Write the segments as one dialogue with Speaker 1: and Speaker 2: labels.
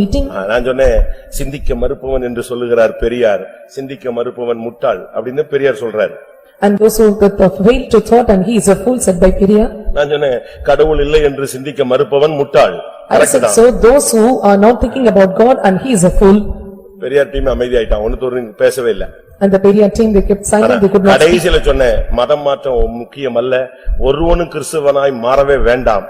Speaker 1: meeting
Speaker 2: ஆ, நான் சொன்னேன் சிந்திக்க மறுப்பவன் என்று சொல்லுகிறார் பெரியார் சிந்திக்க மறுப்பவன் முட்டாள் அப்படின்னு பெரியார் சொல்றாரு
Speaker 1: and those who that fail to thought and he is a fool said by Peria.
Speaker 2: நான் சொன்னேன் கடவுள் இல்லை என்று சிந்திக்க மறுப்பவன் முட்டாள்
Speaker 1: I said
Speaker 2: கரெக்ட்டுதான்.
Speaker 1: so, those who are not thinking about God and he is a fool.
Speaker 2: Periyar team அமைதியாயிட்டான் ஒன்னு தோறு பேசவே இல்ல
Speaker 1: And the Peria team they kept silent, they could not speak.
Speaker 2: கடைசியில சொன்னேன் மதம் மாற்றம் முக்கியம் அல்ல ஒருவனும் கிறிஸ்துவனாய் மாறவே வேண்டாம்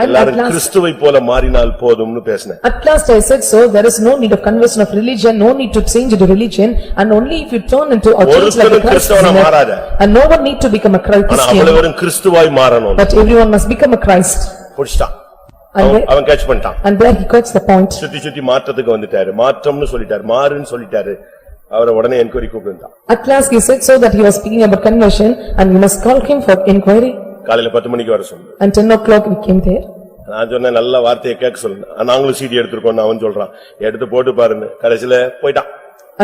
Speaker 1: I'm
Speaker 2: எல்லாரும்
Speaker 1: at last-
Speaker 2: கிறிஸ்துவை போல மாறினால் போதும்னு பேசினேன்
Speaker 1: At last I said so, there is no need of conversion of religion, no need to change into religion and only if you turn into or change like a
Speaker 2: ஒருத்தரும்
Speaker 1: Christ
Speaker 2: கிறிஸ்தவனா
Speaker 1: sinner.
Speaker 2: மாறாத.
Speaker 1: And no one need to become a Christ-
Speaker 2: ஆனா
Speaker 1: Christian,
Speaker 2: அவ்வளவரும் கிறிஸ்துவாய் மாறணும்
Speaker 1: but everyone must become a Christ.
Speaker 2: புடிச்சிட்டான்
Speaker 1: And
Speaker 2: அவன்
Speaker 1: there-
Speaker 2: அவன் catch பண்ணிட்டான்
Speaker 1: and there he got the point.
Speaker 2: சுத்தி சுத்தி மாற்றத்துக்கு வந்துட்டாரு மாற்றம்னு சொல்லிட்டாரு மாறுன்னு சொல்லிட்டாரு அவரை உடனே என்கொயரி கூப்பிட்டுட்டான்
Speaker 1: At last he said so that he was speaking about conversion and we must call him for inquiry.
Speaker 2: காலையில பத்து மணிக்கு வர சொல்லு
Speaker 1: And ten o'clock we came there.
Speaker 2: நான் சொன்னேன் நல்ல வார்த்தையை கேட்க சொல்லு நாங்களும் சீடி எடுத்திருக்கோம்னு அவன் சொல்றான் எடுத்து போட்டு பாருன்னு கடைசியில போயிட்டான்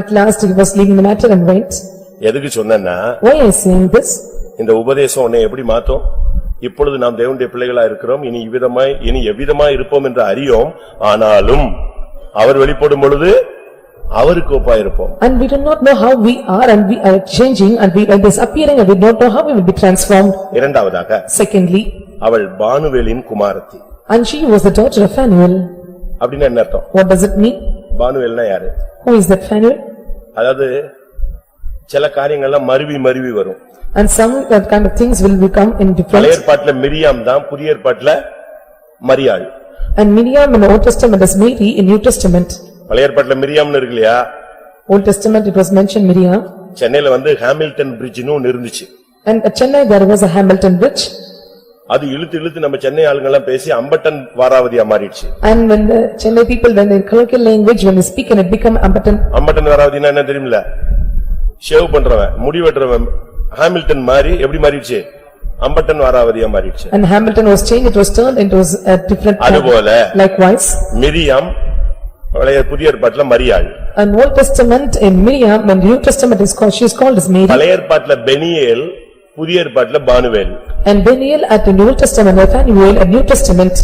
Speaker 1: At last he was leaving the matter and went.
Speaker 2: எதுக்கு சொன்னேன்னா
Speaker 1: Why I saying this?
Speaker 2: இந்த உபதேசம் உன்னை எப்படி மாத்தும் இப்பொழுது நாம் தேவனுடைய பிள்ளைகளா இருக்கிறோம் இனி இவ்விதமாய் இனி எவ்விதமாய் இருப்போம் என்று அறியோம் ஆனாலும் அவர் வெளிப்படும் பொழுது அவருக்கு ஒப்பா இருப்போம்
Speaker 1: And we do not know how we are and we are changing and we are disappearing and we don't know how we will be transformed.
Speaker 2: இரண்டாவதாக
Speaker 1: Secondly,
Speaker 2: அவள் பானுவேலின் குமாரத்தி
Speaker 1: and she was the daughter of Phanuel.
Speaker 2: அப்படின்னு என்ன அர்த்தம்
Speaker 1: What does it mean?
Speaker 2: பானுவேல்னா யாரு
Speaker 1: Who is that Phanuel?
Speaker 2: அதாவது சில காரியங்கள்லாம் மருவி மருவி வரும்
Speaker 1: And some that kind of things will become in
Speaker 2: பழைய
Speaker 1: different.
Speaker 2: ஏற்பாட்டுல மிரியாம் தான் புதிய ஏற்பாட்டுல மரியாள்
Speaker 1: And Miriam in the Old Testament is Mary in New Testament.
Speaker 2: பழைய ஏற்பாட்டுல மிரியாம்னு இருக்கு இல்லையா
Speaker 1: Old Testament it was mentioned Miriam.
Speaker 2: சென்னையில வந்து ஹாமில்டன் பிரிட்ஜ்னு ஒன்னு இருந்துச்சு
Speaker 1: And at Chennai, there was a Hamilton bridge
Speaker 2: அது இழுத்து இழுத்து நம்ம சென்னை ஆளுங்கெல்லாம் பேசி அம்பட்டன் வாராவதியா மாறிடுச்சு
Speaker 1: and when the Chennai people, when they colloquial language, when they speak and it become Ambattan
Speaker 2: அம்பட்டன் வாராவதினா என்ன தெரியுமில்ல ஷேவ் பண்றவன் முடி வெட்டுறவன் ஹாமில்டன் மாறி எப்படி மாறிடுச்சு அம்பட்டன் வாராவதியா மாறிடுச்சு
Speaker 1: and Hamilton was changed, it was turned into a different.
Speaker 2: அதுபோல
Speaker 1: Likewise,
Speaker 2: மிரியாம் பழைய புதிய ஏற்பாட்டுல மரியாள்
Speaker 1: an Old Testament in Miriam, when New Testament is called, she is called as Mary
Speaker 2: பழைய ஏற்பாட்டுல பெனியேல் புதிய ஏற்பாட்டுல பானுவேல்
Speaker 1: and Daniel at the New Testament, Nathaniel at New Testament.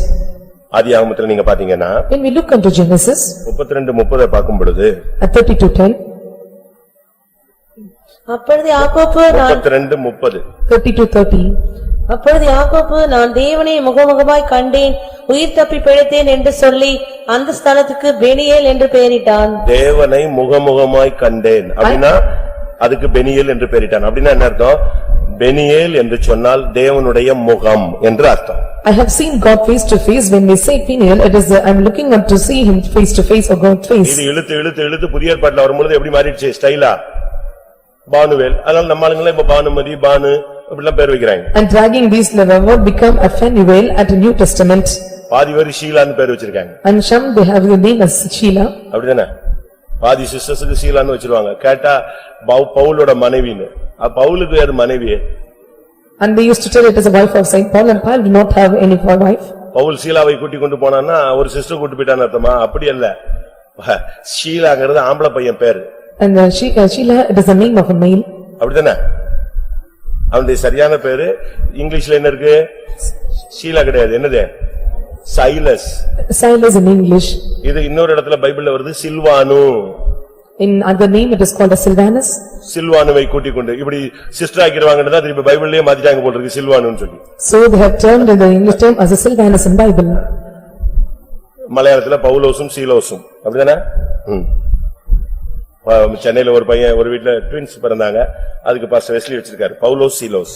Speaker 2: ஆதி ஆகமத்துல நீங்க பாத்தீங்கன்னா
Speaker 1: When we look into Genesis
Speaker 2: முப்பத்தி ரெண்டு முப்பதை பார்க்கும் பொழுது
Speaker 1: at thirty-two ten,
Speaker 3: அப்பொழுது யாக்கோப்பு நான்
Speaker 2: முப்பத்தி ரெண்டு முப்பது
Speaker 1: thirty-two thirty,
Speaker 3: அப்பொழுது யாக்கோப்பு நான் தேவனை முகமுகமாய் கண்டேன் உயிர் தப்பி பிழைத்தேன் என்று சொல்லி அந்த ஸ்தலத்துக்கு பெனியேல் என்று பெயரிட்டான்
Speaker 2: தேவனை முகமுகமாய் கண்டேன் அப்படின்னா அதுக்கு பெனியேல் என்று பெயரிட்டான் அப்படின்னா என்ன அர்த்தம் பெனியேல் என்று சொன்னால் தேவனுடைய முகம் என்று அர்த்தம்
Speaker 1: I have seen God face to face, when we say Peniel, it is, uh, I am looking up to see him face to face or God face.
Speaker 2: இது இழுத்து இழுத்து இழுத்து புதிய ஏற்பாட்டுல வரும்பொழுது எப்படி மாறிடுச்சு ஸ்டைலா பானுவேல் அதனால நம்ம ஆளுங்களே இப்ப பானுமதி பானு இப்படிலாம் பேர் வைக்கிறாங்க
Speaker 1: And dragging these leather would become a Phanuel at the New Testament.
Speaker 2: பாதி பேர் ஷீலான்னு பேர் வச்சிருக்காங்க
Speaker 1: And Shem, they have the name as Sheila.
Speaker 2: அப்படிதானே பாதி சிஸ்டர்ஸுக்கு ஷீலான்னு வச்சிருவாங்க கேட்டா பவு- பவுலோட மனைவின்னு அப்ப பவுலுக்கு யாரு மனைவி
Speaker 1: And they used to tell it as a wife of Saint Paul and Paul did not have any wife.
Speaker 2: Pavul சீலாவை கூட்டிக் கொண்டு போனான்னா ஒரு சிஸ்டர் கூட்டி போயிட்டான்னு அர்த்தமா அப்படி அல்ல ஷீலாங்கிறது ஆம்பளை பையன் பேரு
Speaker 1: And uh, she- uh, Sheila, it is the name of a male.
Speaker 2: அப்படிதானே அவனுடைய சரியான பேரு இங்கிலீஷ்ல என்ன இருக்கு ஷீலா கிடையாது என்னது சைலஸ்
Speaker 1: Silas in English.
Speaker 2: இது இன்னொரு இடத்துல பைபிள்ல வருது சில்வானு
Speaker 1: In other name, it is called as Sylvanus.
Speaker 2: சில்வானுவை கூட்டிக் கொண்டு இப்படி சிஸ்டர் ஆக்கிடுவாங்கன்னு தான் திருப்பி பைபிள்லயே மாத்திட்டாங்க போல இருக்கு சில்வானுன்னு சொல்லி
Speaker 1: So they have termed in the English term as a Sylvanus in Bible.
Speaker 2: மலையாளத்துல பவுலோசும் சீலோசும் அப்படிதானே? ம். ப- சென்னையில ஒரு பையன் ஒரு வீட்ல ட்வின்ஸ் பிறந்தாங்க. அதுக்கு பாஸ்டர் வெஸ்லி வச்சிருக்காரு. Paulose சீலோஸ்.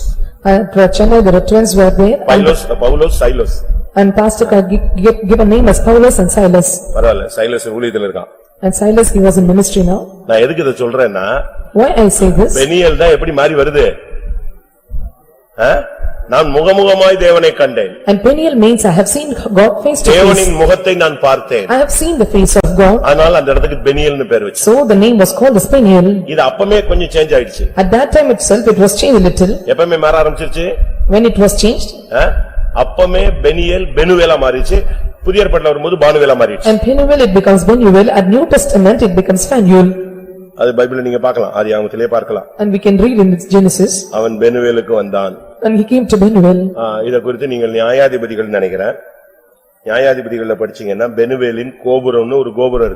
Speaker 1: At uh, Chennai, the twins were there
Speaker 2: பைலோஸ் Paulose Sailoz.
Speaker 1: and pastor could gi- gi- give a name as Paulus and Silas.
Speaker 2: பரவாயில்ல சைலோஸ் ஊழியத்துல இருக்கான்.
Speaker 1: And Silas, he was in ministry now.
Speaker 2: நான் எதுக்கு இதை சொல்றேன்னா
Speaker 1: Why I say this?
Speaker 2: Peniel தான் எப்படி மாறி வருது? ஆ? நான் முகமுகமாய் தேவனை கண்டேன்.
Speaker 1: And Peniel means I have seen God face to face.
Speaker 2: தேவனின் முகத்தை நான் பார்த்தேன்.
Speaker 1: I have seen the face of God.
Speaker 2: ஆனால் அந்த இடத்துக்கு பெனியல்னு பேர் வச்சு.
Speaker 1: So the name was called as Peniel.
Speaker 2: இது அப்பமே கொஞ்சம் சேஞ்ச் ஆயிடுச்சு.
Speaker 1: At that time itself, it was changed a little.
Speaker 2: எப்பமே மாற ஆரம்பிச்சிருச்சு?
Speaker 1: When it was changed,
Speaker 2: ஆ? அப்பமே பெனியல் பெனுவேலா மாறிச்சு புதிய ஏற்பாட்டுல வரும்போது பானுவேலா மாறிச்சு
Speaker 1: and Peniel it becomes Benuel, at New Testament it becomes Phanuel.
Speaker 2: அது பைபிள்ல நீங்க பார்க்கலாம் அது ஆகமத்திலே பார்க்கலாம்
Speaker 1: And we can read in its Genesis,
Speaker 2: அவன் பெனுவேலுக்கு வந்தான்
Speaker 1: and he came to Benuel.
Speaker 2: ஆ, இத குறித்து நீங்கள் நியாயாதிபதிகள் நினைக்கிறேன் நியாயாதிபதிகள்ல படிச்சீங்கன்னா பெனுவேலின் கோபுரம்னு ஒரு கோபுரம் இருக்கு